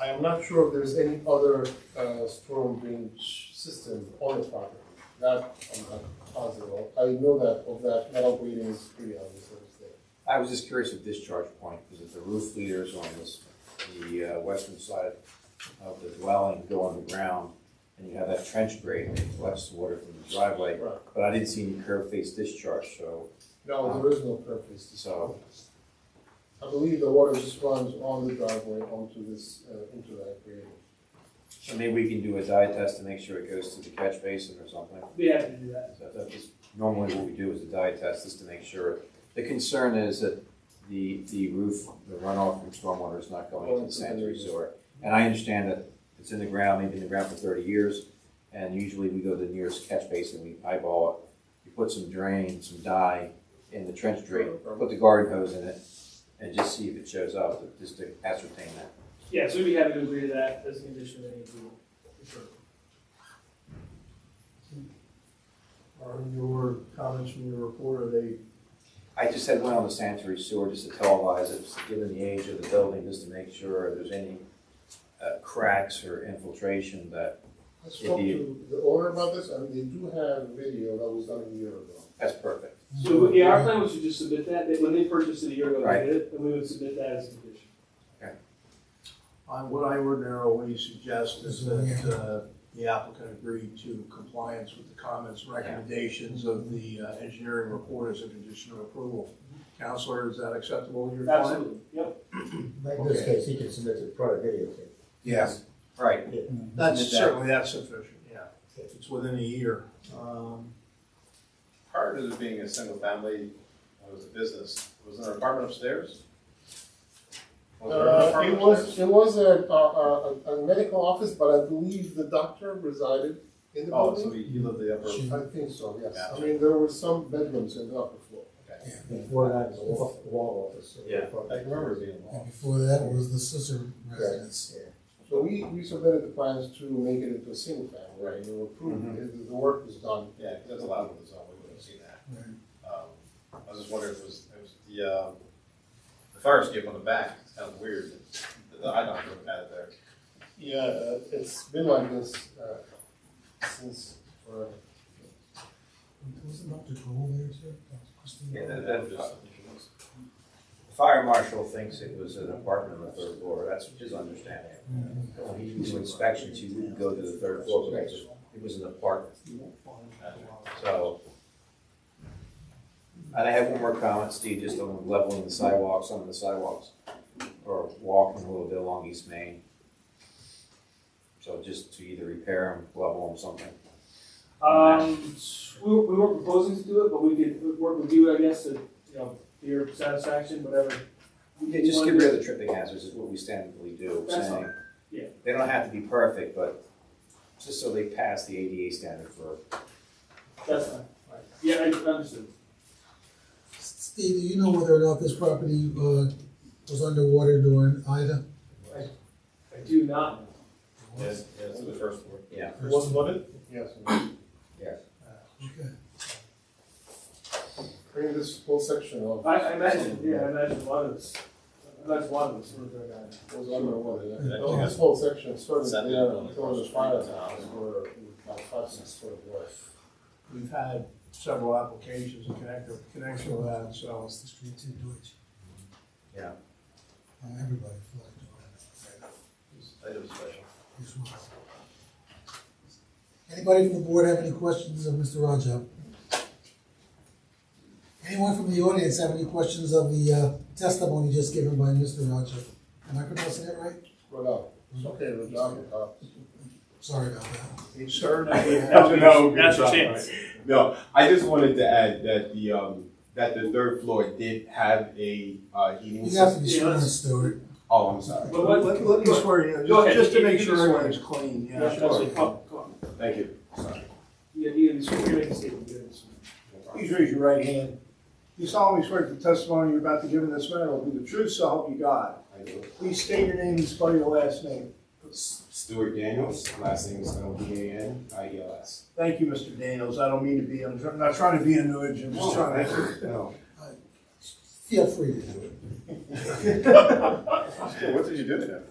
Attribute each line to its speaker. Speaker 1: I am not sure if there's any other uh, storm drainage system on the property. That I'm not positive of. I know that of that metal grating is pretty obvious that it's there.
Speaker 2: I was just curious of discharge point, because if the roof leaders on this, the uh, western side of the dwelling go on the ground, and you have that trench grate that collects water from the driveway,
Speaker 1: Right.
Speaker 2: but I didn't see any curve face discharge, so,
Speaker 1: No, there is no purpose.
Speaker 2: so,
Speaker 1: I believe the water just runs on the driveway onto this, uh, into that grating.
Speaker 2: so maybe we can do a dye test to make sure it goes to the catch basin or something.
Speaker 3: We have to do that.
Speaker 2: So that is normally what we do is a dye test, just to make sure. The concern is that the, the roof, the runoff from stormwater is not going into the sanitary sewer. And I understand that it's in the ground, maybe in the ground for thirty years, and usually we go to the nearest catch basin, we eyeball it. You put some drain, some dye in the trench drain, put the garden hose in it, and just see if it shows up, just to ascertain that.
Speaker 3: Yeah, so we have to agree to that as a condition of any approval, for sure.
Speaker 4: Are your comments from your report, are they,
Speaker 2: I just had one on the sanitary sewer, just to televise it, just given the age of the building, just to make sure if there's any uh, cracks or infiltration that,
Speaker 1: I spoke to the owner about this, and they do have video that was done a year ago.
Speaker 2: that's perfect.
Speaker 3: So, yeah, our plan was to just submit that, that when they purchased it a year ago,
Speaker 2: Right.
Speaker 3: they did it, and we would submit that as a condition.
Speaker 4: I- what I ordinarily suggest is that uh, the applicant agree to compliance with the comments, recommendations of the uh, engineering report as a condition of approval. Counselor, is that acceptable to your client?
Speaker 3: Absolutely, yep.
Speaker 5: In this case, he can submit the product video tape.
Speaker 2: Yes. Right,
Speaker 4: That's
Speaker 2: Submit that.
Speaker 4: certainly, that's sufficient, yeah. If It's within a year. Um,
Speaker 6: Prior to this being a single family, it was a business, was there an apartment upstairs? Was there an
Speaker 1: Uh,
Speaker 6: apartment
Speaker 1: it was,
Speaker 6: upstairs?
Speaker 1: it was a, a, a, a medical office, but I believe the doctor resided in the
Speaker 6: Oh,
Speaker 1: building.
Speaker 6: so he he lived the upper,
Speaker 1: I think so, yes. I
Speaker 6: Yeah.
Speaker 1: mean, there were some bedrooms in the upper floor.
Speaker 5: Before that, it's off the wall office.
Speaker 6: Yeah. I can remember it being long.
Speaker 7: And before that was the sister residence.
Speaker 1: So we, we submitted the plans to make it into a single family, right? They were approved, the, the work was done.
Speaker 6: Yeah, 'cause that's allowed in the zone, we wouldn't have seen that. Um, I was just wondering if it was, it was the, um, the fire escape on the back, it's kind of weird, that the eye doctor would have had it there.
Speaker 1: Yeah, uh, it's been like this, uh, since, uh, forever.
Speaker 7: Was it Dr. Cole there too? That was Christine.
Speaker 2: Yeah, that-
Speaker 6: That was just-
Speaker 2: the fire marshal thinks it was an apartment on the third floor, that's his understanding. When he do inspections, he wouldn't go to the third floor, because it was an apartment. So. And I have one more comment, Steve, just on leveling the sidewalks, some of the sidewalks, or walking a little bit along East Main. So just to either repair them, level them, something.
Speaker 3: Um, we, we weren't proposing to do it, but we could work with you, I guess, to, you know, to your satisfaction, whatever.
Speaker 2: Yeah, just get rid of the tripping hazards is what we standardly do,
Speaker 3: That's
Speaker 2: saying.
Speaker 3: Yeah.
Speaker 2: They don't have to be perfect, but just so they pass the ADA standard for,
Speaker 3: That's fine. Yeah, I understood.
Speaker 7: Steve, do you know whether or not this property, uh, was underwater during Ida?
Speaker 3: I do not.
Speaker 6: Yes, yes, to the first floor.
Speaker 2: yeah.
Speaker 7: It wasn't
Speaker 6: flooded?
Speaker 1: yes.
Speaker 7: Okay.
Speaker 1: Bring this whole section of.
Speaker 3: I, I imagine, yeah, I imagine a lot of this, I imagine a lot of this would have gone down.
Speaker 1: Was underwater, yeah.
Speaker 6: Yeah.
Speaker 1: Well, This whole section started
Speaker 6: Exactly.
Speaker 1: there, until the fire towers were about five, six foot away.
Speaker 4: We've had several applications in connect- connection with that, so.
Speaker 7: Across the street to Deutsch.
Speaker 2: Yeah.
Speaker 7: Uh, everybody flooded during Ida.
Speaker 6: That was special.
Speaker 7: as well. Anybody from the board have any questions of Mr. Rajab? Anyone from the audience have any questions of the uh, testimony just given by Mr. Rajab? Am I pronouncing that right?
Speaker 1: Well, no, it's okay, we're Uh, down the top.
Speaker 7: Sorry about that.
Speaker 4: He served.
Speaker 8: No, that's a chance. No, I just wanted to add that the, um, that the third floor did have a, uh, heating
Speaker 7: You have
Speaker 8: system.
Speaker 7: to be
Speaker 3: Yeah,
Speaker 7: sworn,
Speaker 3: let's-
Speaker 7: Stuart.
Speaker 8: Oh, I'm sorry.
Speaker 3: But what-
Speaker 4: Let, let me swear, you
Speaker 3: Go
Speaker 4: know,
Speaker 3: ahead.
Speaker 4: just, just to
Speaker 3: You-
Speaker 4: make
Speaker 3: you
Speaker 4: sure
Speaker 3: can swear.
Speaker 4: everything's clean,
Speaker 3: Yeah,
Speaker 4: yeah.
Speaker 3: absolutely. Come on, come on.
Speaker 8: Thank you. Sorry.
Speaker 3: Yeah, you, you make a statement, you make a statement.
Speaker 4: Please raise your right hand. You solemnly swear that the testimony you're about to give in this matter will be the truth, so help you God.
Speaker 8: I do.
Speaker 4: Please state your name and spell your last name.
Speaker 8: Stuart Daniels, last name is L D A N I E L S.
Speaker 4: Thank you, Mr. Daniels. I don't mean to be, I'm tr- I'm not trying to be annoying, I'm just trying to.
Speaker 8: No.
Speaker 7: Feel free to do it.
Speaker 6: What did you do to him?